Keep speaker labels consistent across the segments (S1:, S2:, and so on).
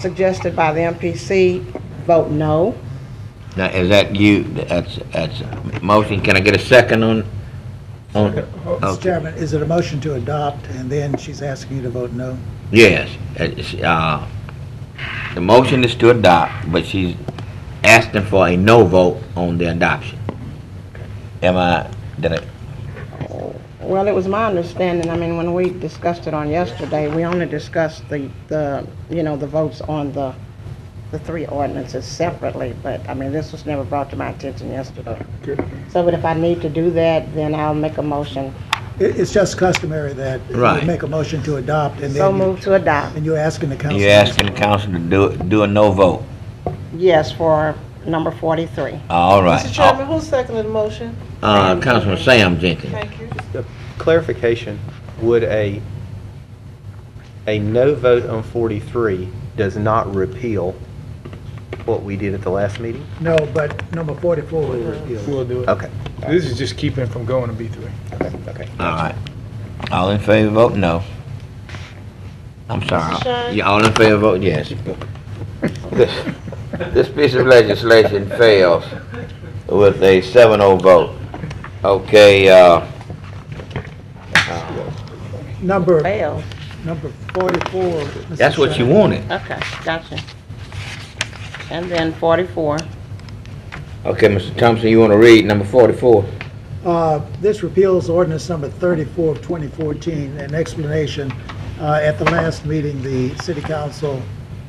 S1: suggested by the MPC, vote no.
S2: Now, is that you, that's, that's a motion, can I get a second on? on-
S3: Mr.
S2: okay.
S3: Chairman, is it a motion to adopt, and then she's asking you to vote no?
S2: Yes, it's, uh, the motion is to adopt, but she's asking for a no vote on the adoption. Am I, did I,
S1: Well, it was my understanding, I mean, when we discussed it on yesterday, we only discussed the, the, you know, the votes on the, the three ordinances separately, but, I mean, this was never brought to my attention yesterday. So, but if I need to do that, then I'll make a motion.
S3: It, it's just customary that
S2: Right.
S3: you make a motion to adopt, and
S1: So
S3: then, you-
S1: move to adopt,
S3: and you're asking the council.
S2: you asking the council to do, do a no vote?
S1: yes, for number forty-three.
S2: All right.
S4: Mr. Chairman, who seconded the motion?
S2: Uh, Councilman Sam Jenkins.
S4: Thank you.
S5: Clarification, would a, a no vote on 43 does not repeal what we did at the last meeting?
S3: No, but number 44 would repeal.
S6: We'll do it.
S5: Okay,
S6: This is just keeping it from going to B3.
S5: okay, okay.
S2: All right. All in favor, vote no. I'm sorry.
S4: Mr. Shine?
S2: Yeah, all in favor, vote yes. This, this piece of legislation fails with a 7-0 vote. Okay, uh,
S3: it. Number,
S1: Fail,
S3: number 44. Mr.
S2: that's what you
S3: Chairman,
S2: wanted.
S1: okay, gotcha. And then forty-four.
S2: Okay, Mr. Thompson, you want to read number forty-four?
S3: Uh, This repeals ordinance number 34 of 2014, an explanation. uh, At the last meeting, the city council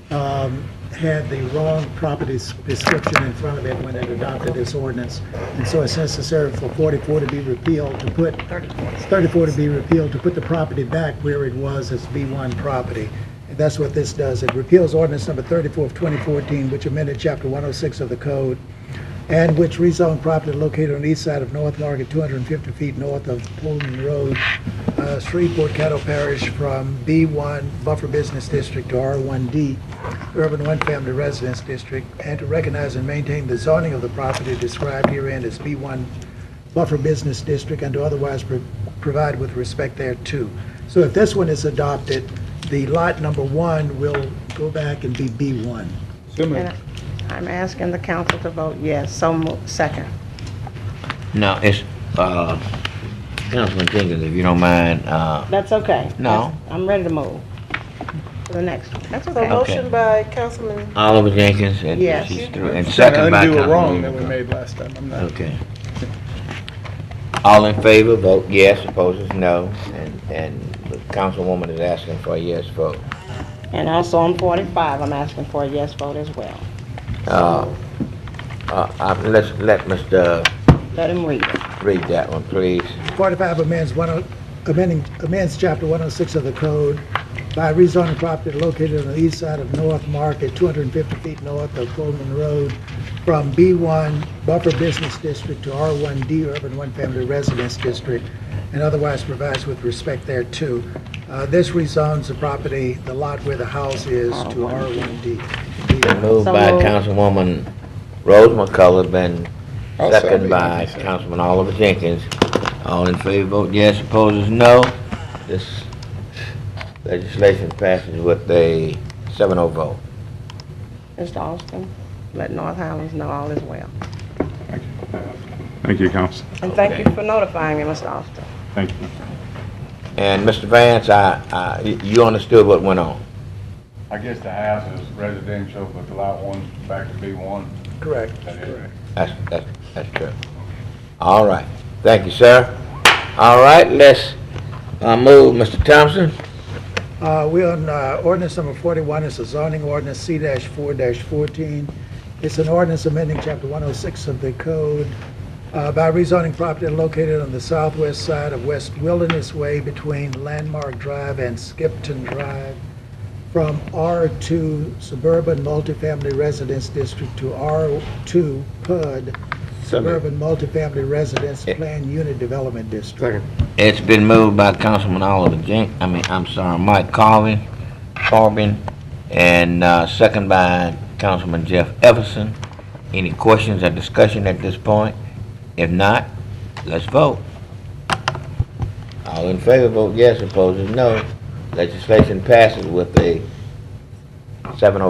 S3: um, had the wrong property s- description in front of it when it adopted this ordinance. And so it's necessary for 44 to be repealed, to put, 34 to be repealed, to put the property back where it was as B1 property. And that's what this does. It repeals ordinance number 34 of 2014, which amended Chapter 106 of the code and which rezoned property located on the east side of North Market, 250 feet north of Pullman Road, uh, Shreveport, Caddo Parish, from B1 Buffer Business District to R1D, Urban One Family Residence District, and to recognize and maintain the zoning of the property described herein as B1 Buffer Business District, and to otherwise pro- provide with respect thereto. So if this one is adopted, the lot number one will go back and be B1.
S6: So moved.
S1: I'm asking the council to vote yes, so mo- second.
S2: No, it's, uh, Councilman Jenkins, if you don't mind, uh,
S1: That's okay.
S2: No.
S1: I'm ready to move to the next one. That's
S4: So
S1: okay.
S4: motion by Councilman,
S2: Oliver Jenkins and
S1: Yes.
S2: she's through, and
S6: Trying
S2: second
S6: to
S2: by
S6: undo a
S2: Councilman.
S6: wrong that we
S2: Wilcox.
S6: made last time. I'm not,
S2: Okay. All in favor, vote yes, opposed is no, and, and the councilwoman is asking for a yes vote.
S1: And also on 45, I'm asking for a yes vote as well.
S2: Uh, uh, uh, let's, let Mr.
S1: Let him read it.
S2: read that one, please.
S3: 45 amends one, oh- amending, amends chapter 106 of the code by rezoning property located on the east side of North Market, 250 feet north of Coleman Road, from B1 Buffer Business District to R1D Urban One Family Residence District, and otherwise provides with respect thereto. Uh, This rezones the property, the lot where the house is, to R1D.
S2: Moved
S1: So
S2: by
S1: moved.
S2: Councilwoman Rose McCullough, and
S6: I'll
S2: second
S6: second.
S2: by Councilman Oliver Jenkins. All in favor, vote yes, opposed is no. This legislation passes with a 7-0 vote.
S1: Mr. Austin, let North Highlands know all is well.
S7: Thank you, Council.
S1: And thank
S2: Okay.
S1: you for notifying me, Mr. Austin.
S7: Thank you.
S2: And Mr. Vance, I, I, you understood what went on.
S8: I guess the house is residential, but the lot one's back to B one.
S3: Correct.
S2: That's, that's, that's true. All right. Thank you, sir. All right, let's, uh, move, Mr. Thompson.
S3: Uh, We're on uh, ordinance number 41, it's a zoning ordinance, C-4-14. It's an ordinance amending Chapter 106 of the code uh, by rezoning property located on the southwest side of West Wilderness Way between Landmark Drive and Skipton Drive from R2 Suburban Multifamily Residence District to R2 PUD Suburban Multifamily Residence
S2: Yeah.
S3: Plan Unit Development District.
S2: It's been moved by Councilman Oliver Jenk, I mean, I'm sorry, Mike Carvin, Corbin, and, uh, second by Councilman Jeff Everson. Any questions or discussion at this point? If not, let's vote. All in favor, vote yes, opposed is no. Legislation passes with a 7-0